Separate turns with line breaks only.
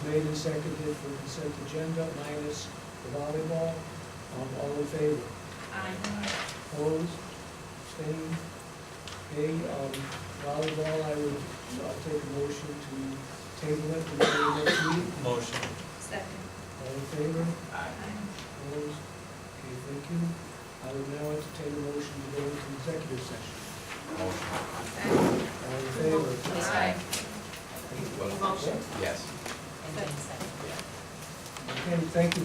made and seconded for consent agenda minus the volleyball. Um, All in favor? Opposed? Abstained? Okay, um, volleyball, I would, I'll take a motion to table it until the next meeting.
Motion.
Second.
All in favor?
Aye.
Opposed? Okay, thank you. I would now entertain a motion to go into executive session.
Second.
All in favor?
Aye.
Well,
Motion.
Yes.
Second.
Okay, thank you.